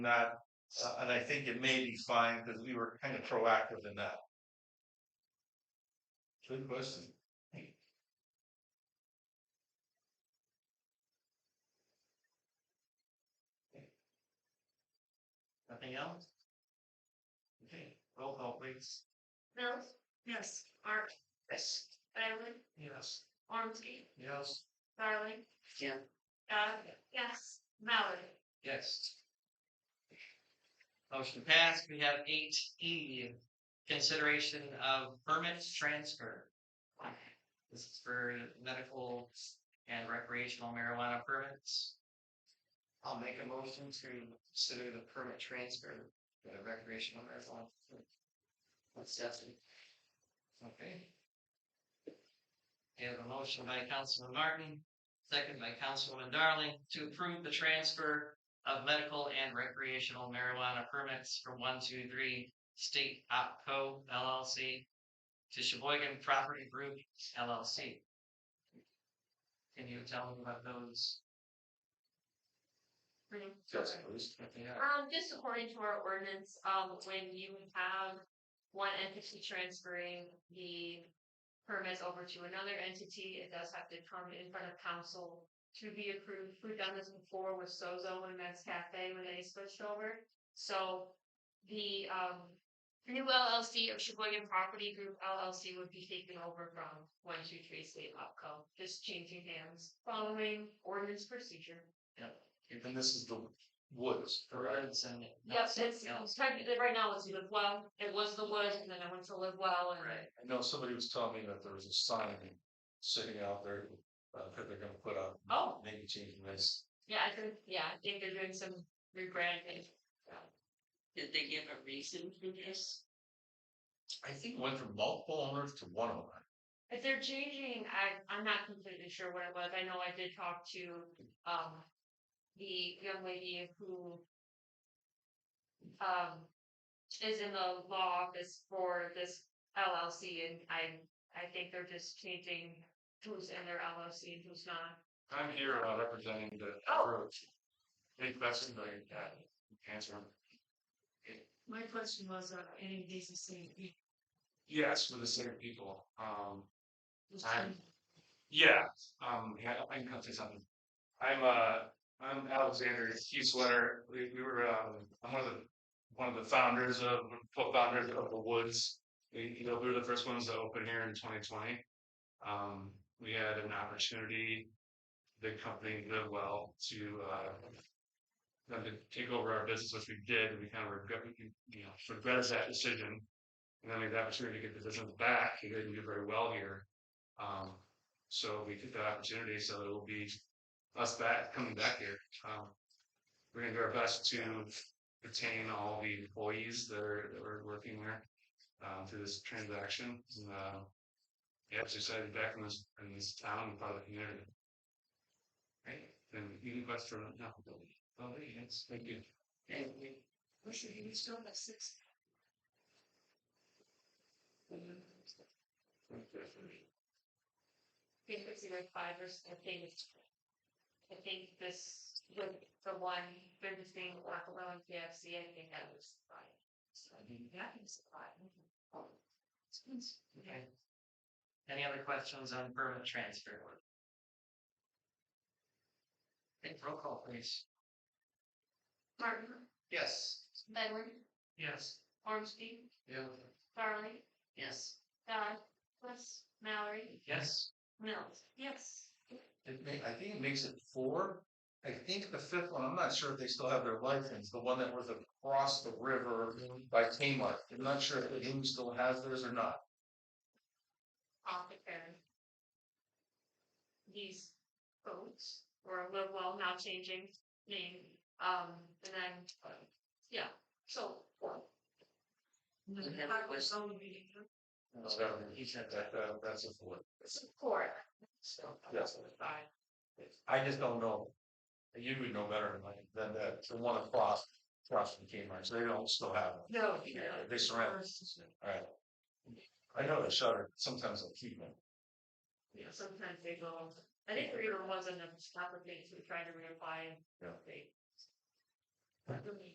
Not, uh, and I think it may be fine because we were kind of proactive in that. Good question. Nothing else? Okay, roll call please. Mills? Yes. Art? Yes. Diamond? Yes. Ormski? Yes. Darling? Yeah. Uh, yes. Mallory? Yes. Motion passed. We have eight E, consideration of permit transfer. This is for medical and recreational marijuana permits. I'll make a motion to consider the permit transfer for the recreational marijuana. That's Stephanie. Okay. We have a motion by Councilman Martin, second by Councilwoman Darling, to approve the transfer of medical and recreational marijuana permits from one, two, three State OpCo LLC to Sheboygan Property Group LLC. Can you tell me about those, Yes, please. what they are? Um, just according to our ordinance, um, when you have one entity transferring the permits over to another entity, it does have to come in front of council to be approved. We've done this before with Sozo and Men's Cafe when they switched over. So the, um, new LLC of Sheboygan Property Group LLC would be taken over from one, two, three State Opco, just changing hands, following ordinance procedure. And this is the woods, The roads and. Yes, it's, Yeah. it's technically, right now it's Live Well, it was the woods, and then I went to Live Well, and. Right, I know somebody was telling me that there was a sign sitting out there, uh, that they're gonna put up, Oh, maybe changing this. yeah, I think, yeah, I think they're doing some rebranding. Did they give a reason for this? I think it went from multiple owners to one owner. If they're changing, I, I'm not completely sure what it was, I know I did talk to, um, the young lady who. Um, is in the law office for this LLC, and I, I think they're just changing who's in their LLC and who's not. I'm here uh, representing the Oh. approach. Any questions I can answer? them. My question was, are any of these the same people? Yes, for the same people. Um, I'm, yeah, um, yeah, I can come say something. I'm, uh, I'm Alexander Hueswetter. We, we were, um, I'm one of the, one of the founders of, co-founders of the Woods. We, you know, we were the first ones to open here in twenty twenty. Um, we had an opportunity, the company did well to, uh, them to take over our business, which we did, and we kind of regret, you know, regretted that decision. And then we had the opportunity to get the business back. He didn't do very well here. Um, so we took that opportunity. So it'll be us back coming back here. Um, we're gonna do our best to retain all the employees that are that were working there um, through this transaction. And, uh, yeah, it's excited to be back in this in this town and part of the community. Right. And you request for no, oh, yes, thank you. And we, we should be still at six. I think it's either five or s- I think it's. I think this with the one business being Waccalo and KFC, I think that was five. So I think that is five. okay. Any other questions on permit transfer? Okay, roll call please. Martin, Yes. Edward, Yes. Ormski, Yeah. Farley, Yes. Dodd, West, Mallory, Yes. Mills. Yes. It ma- I think it makes it four. I think the fifth one, I'm not sure if they still have their license, the one that was across the river by Kmart. I'm not sure if the Inn still has theirs or not. Off the Karen. These boats were a little well now changing name, um, and then, uh, yeah, so. That was only. That's what I mean. He said that. That, uh, that's a four. Support. So. uh, Yes. I just don't know. You would know better than I, than that, the one across, across from Kmart, so they don't still have it. No. Yeah, They surround, alright. I know they shut it, sometimes they'll keep them. Yeah, sometimes they go, I think there even was an application to try to reapply. and Yeah. They.